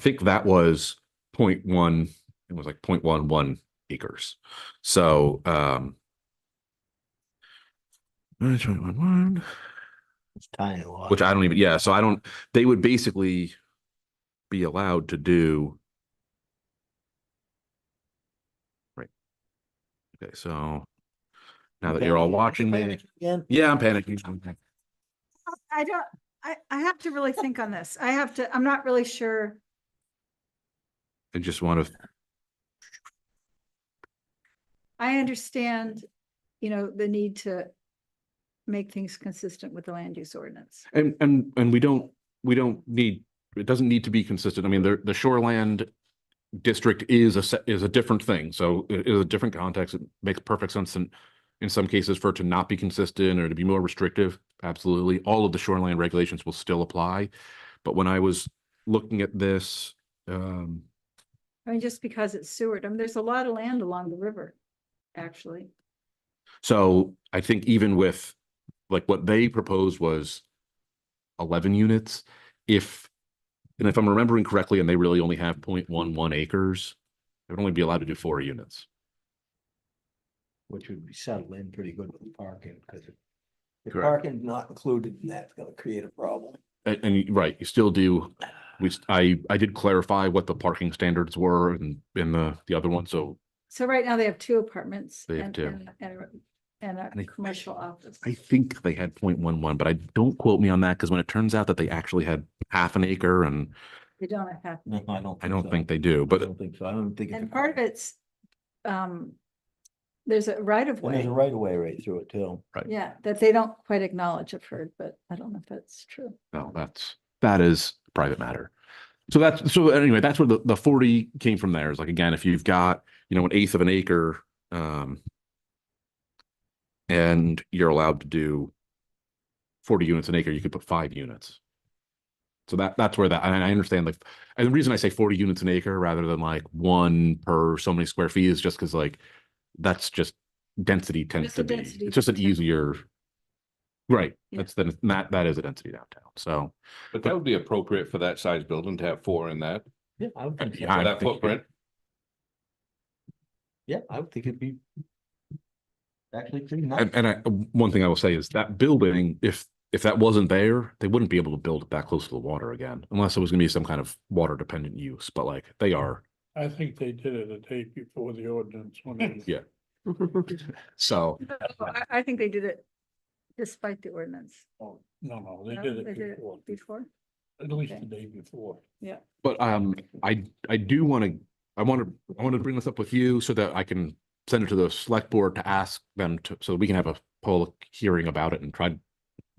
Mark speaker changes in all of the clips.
Speaker 1: think that was 0.1. it was like 0.11 acres. So, um, which one-
Speaker 2: Tiny lot.
Speaker 1: which I don't even, yeah, so I don't, they would basically be allowed to do. Right. Okay, so now that you're all watching me,
Speaker 2: Again,
Speaker 1: yeah, I'm panicking.
Speaker 3: I don't, I, I have to really think on this. I have to, I'm not really sure.
Speaker 1: I just want to,
Speaker 3: I understand, you know, the need to make things consistent with the land use ordinance.
Speaker 1: and, and, and we don't, we don't need, it doesn't need to be consistent. I mean, the, the shoreland district is a, se- is a different thing. So it is a different context. It makes perfect sense in, in some cases for it to not be consistent or to be more restrictive. Absolutely. All of the shoreline regulations will still apply. But when I was looking at this, um,
Speaker 3: I mean, just because it's Seward, I mean, there's a lot of land along the river, actually.
Speaker 1: So I think even with, like, what they proposed was eleven units, if, and if I'm remembering correctly, and they really only have 0.11 acres, they would only be allowed to do four units.
Speaker 2: which would be settled in pretty good with parking, because if
Speaker 1: Correct.
Speaker 2: parking's not included, in that's gonna create a problem.
Speaker 1: And, and you- right, you still do, we, s- I, I did clarify what the parking standards were in, in the, the other one, so
Speaker 3: So right now they have two apartments.
Speaker 1: They have
Speaker 3: and-
Speaker 1: two.
Speaker 3: and- And, a- and
Speaker 1: And I-
Speaker 3: a commercial office.
Speaker 1: I think they had 0.11, but I don't quote me on that, because when it turns out that they actually had half an acre, and
Speaker 3: They don't have half.
Speaker 2: No, I don't.
Speaker 1: I don't
Speaker 2: so.
Speaker 1: think they do,
Speaker 2: I
Speaker 1: but
Speaker 2: don't think so, I don't think. it's a
Speaker 3: And part of
Speaker 2: park.
Speaker 3: it's, um, there's a right of
Speaker 2: And There's
Speaker 3: way.
Speaker 2: a right of way right through it too.
Speaker 3: Yeah, that they don't quite acknowledge, I've heard, but I don't know if that's true.
Speaker 1: No, that's, that is a private matter. So that's, so anyway, that's where the, the forty came from there is like, again, if you've got, you know, an eighth of an acre, um, and you're allowed to do forty units an acre, you could put five units. So that, that's where that, and I understand like, and the reason I say forty units an acre rather than like one per so many square feet is just because like, that's just density tends
Speaker 3: It's a
Speaker 1: to be,
Speaker 3: density
Speaker 1: it's just an
Speaker 3: downtown.
Speaker 1: easier. Right,
Speaker 3: Yeah.
Speaker 1: that's the, that, that is a density downtown, so.
Speaker 4: But that would be appropriate for that size building to have four in that,
Speaker 2: Yeah, I would think, so.
Speaker 1: Yeah, I
Speaker 4: for that
Speaker 1: think-
Speaker 4: footprint.
Speaker 2: yeah, I would think it'd be. Actually, pretty nice.
Speaker 1: And, and I, one thing I will say is that building, if, if that wasn't there, they wouldn't be able to build it that close to the water again, unless it was gonna be some kind of water dependent use, but like, they are,
Speaker 5: I think they did it a day before the ordinance. when they-
Speaker 1: Yeah. so.
Speaker 3: Oh, I, I think they did it despite the ordinance.
Speaker 5: Oh, No, no, they
Speaker 3: No,
Speaker 5: did it before,
Speaker 3: Before,
Speaker 5: at least the
Speaker 3: Okay.
Speaker 5: day before.
Speaker 1: But um, I, I do want to, I want to, I want to bring this up with you so that I can send it to the select board to ask them to, so we can have a public hearing about it and try to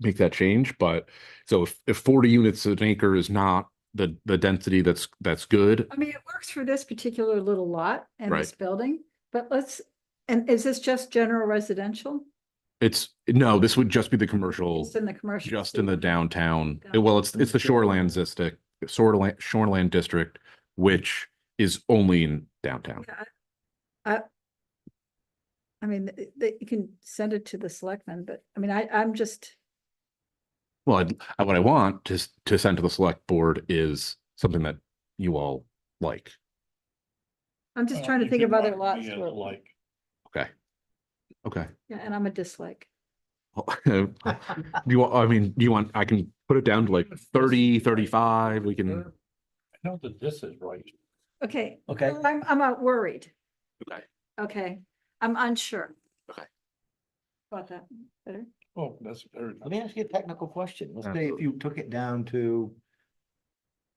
Speaker 1: make that change, but so if, if forty units an acre is not the, the density that's, that's good,
Speaker 3: I mean, it works for this particular little lot and
Speaker 1: Right.
Speaker 3: this building, but let's, and is this just general residential?
Speaker 1: it's, no, this would just be the commercial.
Speaker 3: Just in the commercial?
Speaker 1: Just in the downtown,
Speaker 3: Got
Speaker 1: eh, well, it's,
Speaker 2: In
Speaker 1: it's
Speaker 2: the
Speaker 1: the shoreland
Speaker 2: shoreline.
Speaker 1: district, shoreland, shoreland district, which is only in downtown.
Speaker 3: Yeah, I I- I mean, th- th- you can send it to the selectmen, but I mean, I, I'm just,
Speaker 1: Well, I'd- I, what I want to, s- to send to the select board is something that you all like.
Speaker 3: I'm just
Speaker 5: Uh,
Speaker 3: trying to
Speaker 5: if
Speaker 3: think
Speaker 5: it
Speaker 3: of other
Speaker 5: might
Speaker 3: lots.
Speaker 5: be a
Speaker 3: where-
Speaker 5: Like,
Speaker 1: Okay.
Speaker 3: Yeah, and I'm a dislike.
Speaker 1: Do you, want- I mean, do you want, I can put it down to like thirty, thirty-five, we can,
Speaker 5: I know that this is right.
Speaker 3: Okay.
Speaker 2: Okay.
Speaker 3: well, I'm, I'm uh, worried.
Speaker 1: Okay.
Speaker 3: Okay, I'm unsure.
Speaker 1: Okay.
Speaker 3: About that better.
Speaker 5: Oh, that's very.
Speaker 2: Let me ask you a technical question. Let's say if
Speaker 1: Absolutely.
Speaker 2: you took it down to.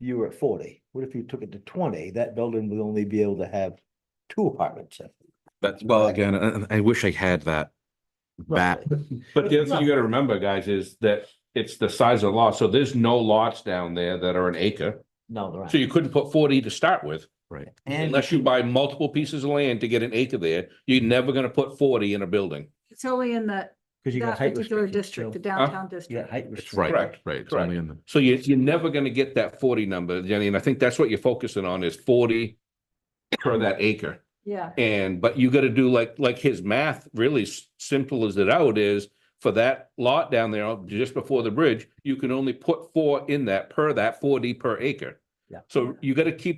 Speaker 2: You were at forty. What if you took it to twenty? That building would only be able to have two apartments. in it,
Speaker 1: that's, well, again, I, I wish I had that. That,
Speaker 2: roughly.
Speaker 4: But the other thing you gotta remember, guys, is that it's the size of the lot, so there's no lots down there that are an acre.
Speaker 2: No, there aren't.
Speaker 4: So you couldn't put forty to start with,
Speaker 1: right,
Speaker 2: And
Speaker 4: unless you buy multiple pieces of land to get an acre there, you're never gonna put forty in a building.
Speaker 3: It's only in the,
Speaker 2: Cause you
Speaker 3: that
Speaker 2: got height
Speaker 3: particular
Speaker 2: restrictions.
Speaker 3: district, the
Speaker 2: too.
Speaker 3: downtown
Speaker 2: You
Speaker 3: district.
Speaker 2: got height
Speaker 1: it's
Speaker 2: restrictions.
Speaker 1: right,
Speaker 4: Correct,
Speaker 1: right, it's
Speaker 4: correct.
Speaker 1: only in the,
Speaker 4: So you, you're never gonna get that forty number, Jenny, and I think that's what you're focusing on is forty per that acre.
Speaker 3: Yeah,
Speaker 4: And, but you gotta do like, like his math, really s- simple as it out is, for that lot down there, just before the bridge, you can only put four in that per that forty per acre.
Speaker 2: Yeah.
Speaker 4: So you gotta keep